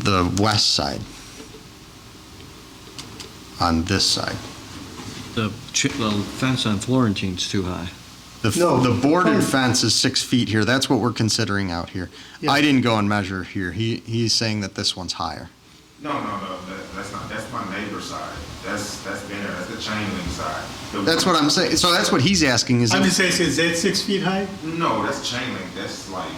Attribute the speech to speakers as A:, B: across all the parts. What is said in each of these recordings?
A: the west side. On this side.
B: The chi- the fence on Florentine's too high.
A: The, f-
C: No,
A: the bordered
C: fine.
A: fence is six feet here. That's what we're considering out here.
C: Yeah.
A: I didn't go and measure here. He, he's saying that this one's higher.
D: No, no, no, that, that's not, that's my neighbor's side. That's, that's been there, that's the chain link side. The-
A: That's what I'm saying. So that's what he's asking is,
C: I'm
A: if-
C: just asking, is that six feet high?
D: No, that's chain link, that's like,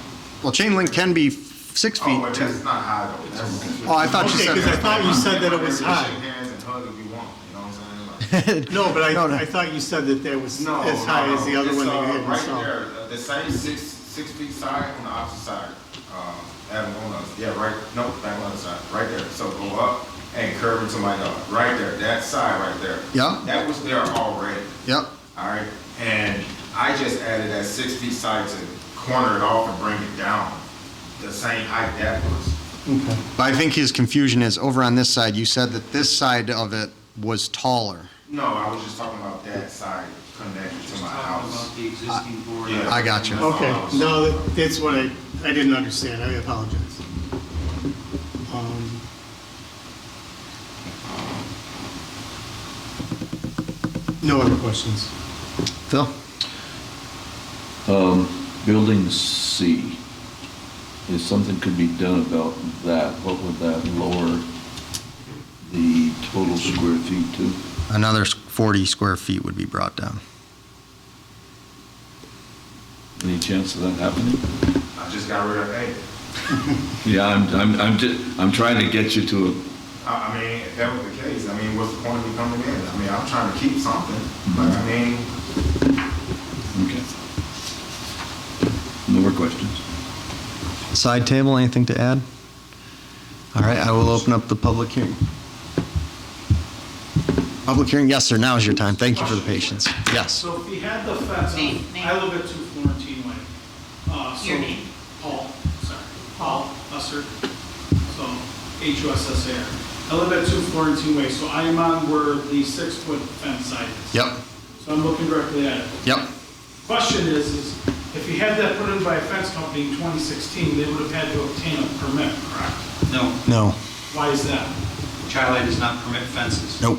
A: well, chain link can be f- six
D: oh,
A: feet
D: but
A: too.
D: that's not high though. That's-
A: Oh, I thought you
C: Okay, 'cause I
A: said,
C: thought you said that it was
D: We can
C: high.
D: Shake hands and hug if you want, you know what I'm saying? Like,
C: No, but
A: No, no.
C: I, I thought you said that there was
D: No,
C: as high
D: no,
C: as the other
D: it's,
C: one that
D: uh,
C: you had
D: Right
C: installed.
D: there, uh, the same six, six feet side on the opposite side, um, Adam, on the, yeah, right, no, back on the side, right there. So go up and curve into my dog, right there, that side right there.
A: Yeah.
D: That was there already.
A: yep,
D: All right, and I just added that six feet side to corner it off and bring it down the same height that was.
A: But I think his confusion is over on this side, you said that this side of it was taller.
D: No, I was just talking about that side connected to my house.
E: the existing board.
D: Yeah.
A: I got you.
C: Okay, no, that- that's what I, I didn't understand, I apologize. Um, No other questions?
A: Phil?
F: Building C, if something could be done about that, what would that lower the total square feet to?
A: Another s- 40 square feet would be brought down.
F: Any chance of that happening?
D: I just got rid of eight.
F: Yeah, I'm, I'm, I'm, ju- I'm trying to get you to a,
D: I, I mean, if that was the case, I mean, what's the point of me coming in? I mean, I'm trying to keep something, but I mean,
F: okay. No more questions?
A: Side table, anything to add? All right, I will open up the public hearing. Public hearing, yes, sir, now is your time. Thank you for the patience. Yes.
G: So if he had the fence,
H: Name,
G: on-
H: name.
G: I live at two Florentine Way. Uh, so-
H: Your name.
G: Paul, sorry, Paul Usser, so H U S S A R. I live at two Florentine Way, so I am on where the six-foot fence side is.
A: Yep,
G: So I'm looking directly at it.
A: yep.
G: Question is, is if you had that put in by a fence company in 2016, they would have had to obtain a permit, correct?
E: No,
A: No,
G: Why is that?
E: Chi-Lite does not permit fences.
A: nope.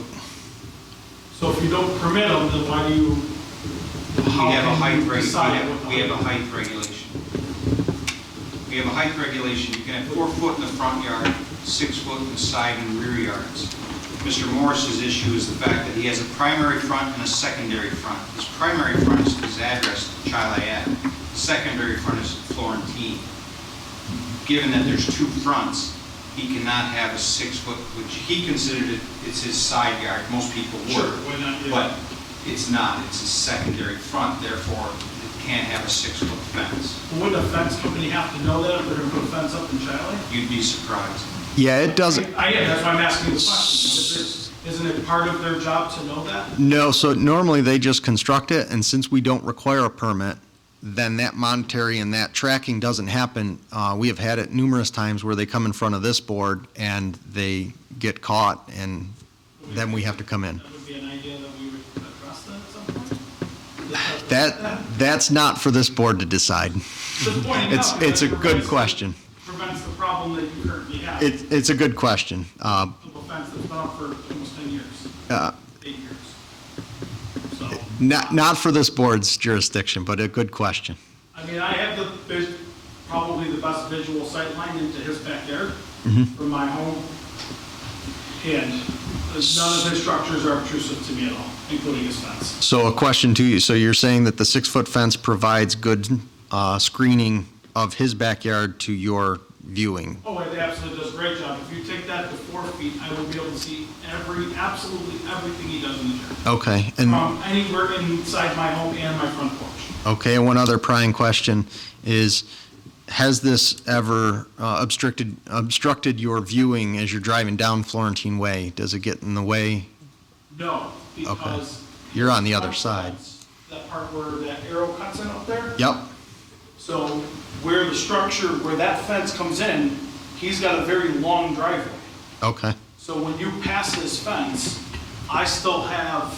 G: So if you don't permit them, then why do you?
E: We
G: how
E: have a
G: can
E: height
G: you
E: reg, we
G: decide what
E: have,
G: the
E: we have a
G: height-
E: height regulation. We have a height regulation, you can have four foot in the front yard, six foot in the side and rear yards. Mr. Morris's issue is the fact that he has a primary front and a secondary front. His primary front is his address, Chi-Lite Ave, secondary front is Florentine. Given that there's two fronts, he cannot have a six foot, which he considered it, it's his side yard, most people would.
G: Sure, why not, yeah.
E: But it's not, it's a secondary front, therefore it can't have a six-foot fence.
G: Wouldn't a fence company have to know that if they're gonna put a fence up in Charlie?
E: You'd be surprised.
A: Yeah, it doesn't,
G: I am, that's why I'm asking the question. Isn't it part of their job to know that?
A: no, so normally they just construct it, and since we don't require a permit, then that monetary and that tracking doesn't happen. Uh, We have had it numerous times where they come in front of this board and they get caught, and then we have to come in.
G: That would be an idea that we would address that at some point?
A: That, that's not for this board to decide.
G: Just pointing out
A: It's,
G: that
A: it's a good
G: prevents-
A: question.
G: Prevents the problem that you currently have.
A: It's, it's a good question. Uh,
G: Of a fence that's been up for almost ten years,
A: uh,
G: eight years. So,
A: Not, not for this board's jurisdiction, but a good question.
G: I mean, I have the, vis- probably the best visual sight line into his backyard
A: Mm-hmm.
G: from my home. And none of his structures are obtrusive to me at all, including his fence.
A: So a question to you, so you're saying that the six-foot fence provides good uh, screening of his backyard to your viewing?
G: Oh, it absolutely does a great job. If you take that to four feet, I will be able to see every, absolutely everything he does in the yard.
A: Okay, and,
G: From anywhere inside my home and my front porch.
A: okay, and one other prying question is, has this ever uh, obstructed, obstructed your viewing as you're driving down Florentine Way? Does it get in the way?
G: No, because.
A: You're on the other side.
G: That part where that arrow cuts in up there.
A: Yep,
G: So where the structure, where that fence comes in, he's got a very long driveway.
A: okay.
G: So when you pass this fence, I still have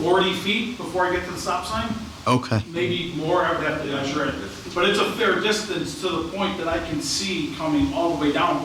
G: 40 feet before I get to the stop sign.
A: Okay,
G: maybe more, I would have to measure it. But it's a fair distance to the point that I can see coming all the way down